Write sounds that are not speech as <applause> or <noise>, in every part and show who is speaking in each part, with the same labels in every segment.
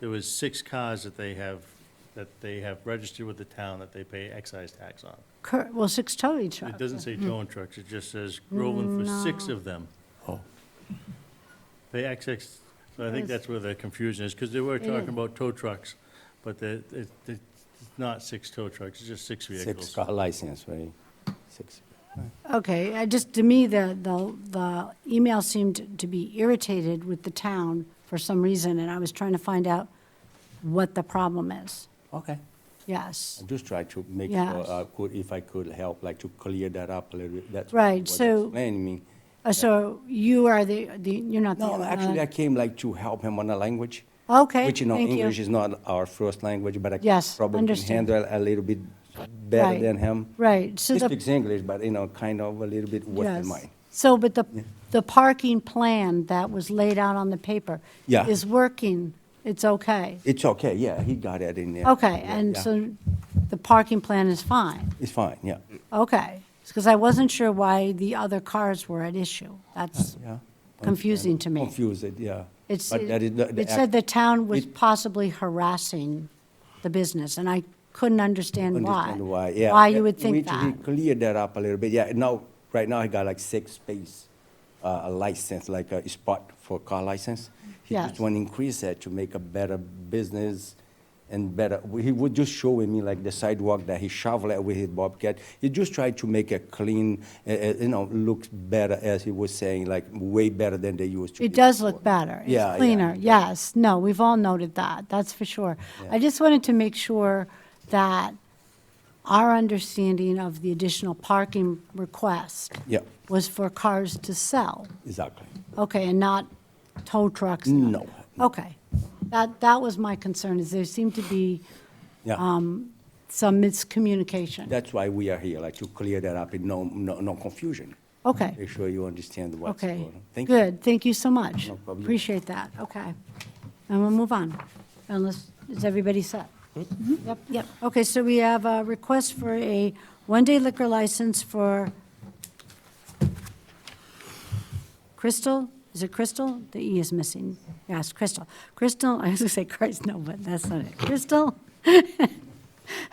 Speaker 1: there was six cars that they have, that they have registered with the town that they pay excise tax on.
Speaker 2: Cor- Well, six towing
Speaker 1: It
Speaker 2: trucks.
Speaker 1: doesn't say towing trucks, it just says Groveland for six of them.
Speaker 3: Oh.
Speaker 1: They excise, so I think
Speaker 2: Yes.
Speaker 1: that's where the confusion is, because they were
Speaker 2: It
Speaker 1: talking
Speaker 2: is.
Speaker 1: about tow trucks, but the, it, it's not six tow trucks, it's just six
Speaker 3: Six
Speaker 1: vehicles.
Speaker 3: car license, right? Six.
Speaker 2: Okay, I just, to me, the, the, the email seemed to be irritated with the town for some reason, and I was trying to find out what the problem is.
Speaker 3: Okay.
Speaker 2: Yes.
Speaker 3: I just try to make
Speaker 2: Yes.
Speaker 3: sure, uh, could, if I could help, like to clear that up a little bit. That's
Speaker 2: Right,
Speaker 3: what
Speaker 2: so-
Speaker 3: Explain me.
Speaker 2: Uh, So you are the, the, you're not the.
Speaker 3: No, actually, I came like to help him on the language.
Speaker 2: uh, Okay,
Speaker 3: Which, you know,
Speaker 2: thank you.
Speaker 3: English is not our first language, but I
Speaker 2: Yes,
Speaker 3: probably can
Speaker 2: understood.
Speaker 3: handle a little bit better
Speaker 2: Right.
Speaker 3: than him.
Speaker 2: Right, so
Speaker 3: He
Speaker 2: the.
Speaker 3: speaks English, but, you know, kind of a little bit worse than
Speaker 2: Yes.
Speaker 3: mine.
Speaker 2: So, but the, the parking plan that was laid out on the paper.
Speaker 3: Yeah.
Speaker 2: Is working, it's okay.
Speaker 3: It's okay, yeah, he got it in there.
Speaker 2: Okay,
Speaker 3: Yeah,
Speaker 2: and
Speaker 3: yeah.
Speaker 2: so the parking plan is fine,
Speaker 3: It's fine, yeah,
Speaker 2: okay. Because I wasn't sure why the other cars were at issue. That's
Speaker 3: yeah.
Speaker 2: confusing to me.
Speaker 3: Confused, yeah.
Speaker 2: It's,
Speaker 3: But that is not the
Speaker 2: it
Speaker 3: act-
Speaker 2: said the town was
Speaker 3: it-
Speaker 2: possibly harassing the business, and I couldn't understand why.
Speaker 3: Understand why, yeah.
Speaker 2: Why
Speaker 3: Yeah,
Speaker 2: you would think
Speaker 3: We
Speaker 2: that.
Speaker 3: need to clear that up a little bit, yeah, now, right now, I got like six space, uh, a license, like a spot for car license. He
Speaker 2: Yes.
Speaker 3: just want to increase that to make a better business and better, he was just showing me like the sidewalk that he shoveled with his bobcat. He just tried to make it clean, uh, uh, you know, looks better, as he was saying, like way better than they used to.
Speaker 2: It
Speaker 3: be
Speaker 2: does look
Speaker 3: before.
Speaker 2: better.
Speaker 3: Yeah, yeah,
Speaker 2: It's cleaner,
Speaker 3: yeah.
Speaker 2: yes. No, we've all noted that, that's for sure. I just wanted to make sure that our understanding of the additional parking request
Speaker 3: Yeah,
Speaker 2: was for cars to sell,
Speaker 3: exactly.
Speaker 2: okay, and not tow trucks? and
Speaker 3: No.
Speaker 2: other- Okay. That, that was my concern, is there seemed to be
Speaker 3: Yeah.
Speaker 2: Um, some miscommunication.
Speaker 3: That's why we are here, like to clear that up, and no, no, no confusion.
Speaker 2: Okay,
Speaker 3: Make sure you understand what's going
Speaker 2: okay.
Speaker 3: on. Thank you.
Speaker 2: Good, thank you so much.
Speaker 3: No problem.
Speaker 2: Appreciate that, okay. And we'll move on, unless, is everybody set?
Speaker 3: Hmm?
Speaker 2: Mhm. Yep, yep. Okay, so we have a request for a one-day liquor license for Crystal, is it Crystal? The E is missing. Yes, Crystal. Crystal, <laughs> I was gonna say Christ, no, but that's not it. Crystal?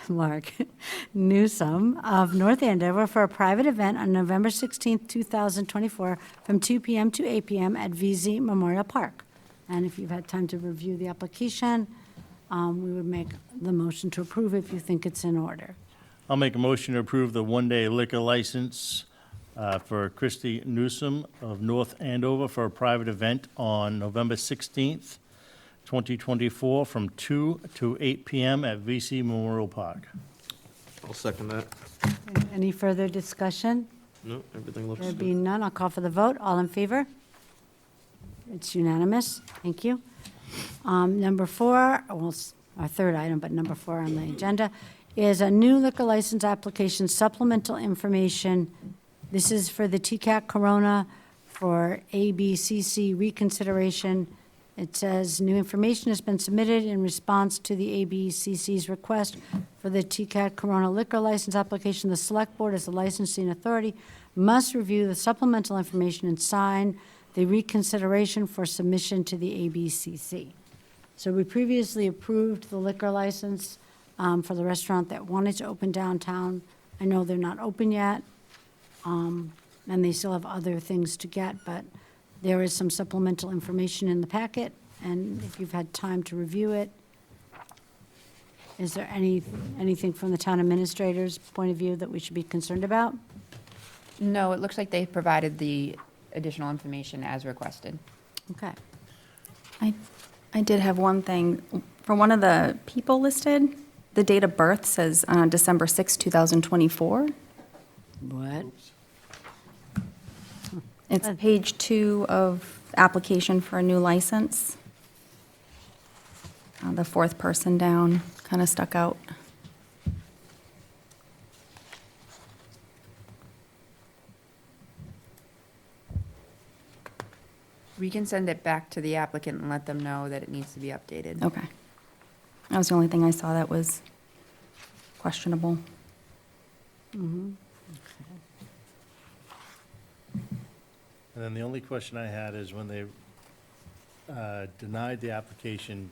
Speaker 2: Mark <laughs> Newsom of North Andover for a private event on November 16th, 2024, from 2 PM to 8 PM at VZ Memorial Park. And if you've had time to review the application, um, we would make the motion to approve if you think it's in order.
Speaker 1: I'll make a motion to approve the one-day liquor license uh, for Christy Newsom of North Andover for a private event on November 16th, 2024, from 2 to 8 p.m. at VC Memorial Park.
Speaker 4: I'll second that.
Speaker 2: Any further discussion?
Speaker 4: No, everything looks
Speaker 2: There
Speaker 4: good.
Speaker 2: being none, I'll call for the vote. All in favor? It's unanimous. Thank you. Um, Number four, well, it's our third item, but number four on the agenda, is a new liquor license application supplemental information. This is for the TCAT Corona for ABCC reconsideration. It says, "New information has been submitted in response to the ABCC's request for the TCAT Corona liquor license application. The Select Board, as the licensing authority, must review the supplemental information and sign the reconsideration for submission to the ABCC." So we previously approved the liquor license um, for the restaurant that wanted to open downtown. I know they're not open yet, um, and they still have other things to get, but there is some supplemental information in the packet, and if you've had time to review it, is there any, anything from the town administrator's point of view that we should be concerned about?
Speaker 5: No, it looks like they provided the additional information as requested.
Speaker 2: Okay.
Speaker 6: I, I did have one thing. For one of the people listed, the date of birth says uh, December 6, 2024.
Speaker 2: What?
Speaker 6: It's page two of application for a new license. Uh, The fourth person down, kind of stuck out.
Speaker 5: We can send it back to the applicant and let them know that it needs to be updated.
Speaker 6: Okay. That was the only thing I saw that was questionable.
Speaker 1: And then the only question I had is when they uh, denied the application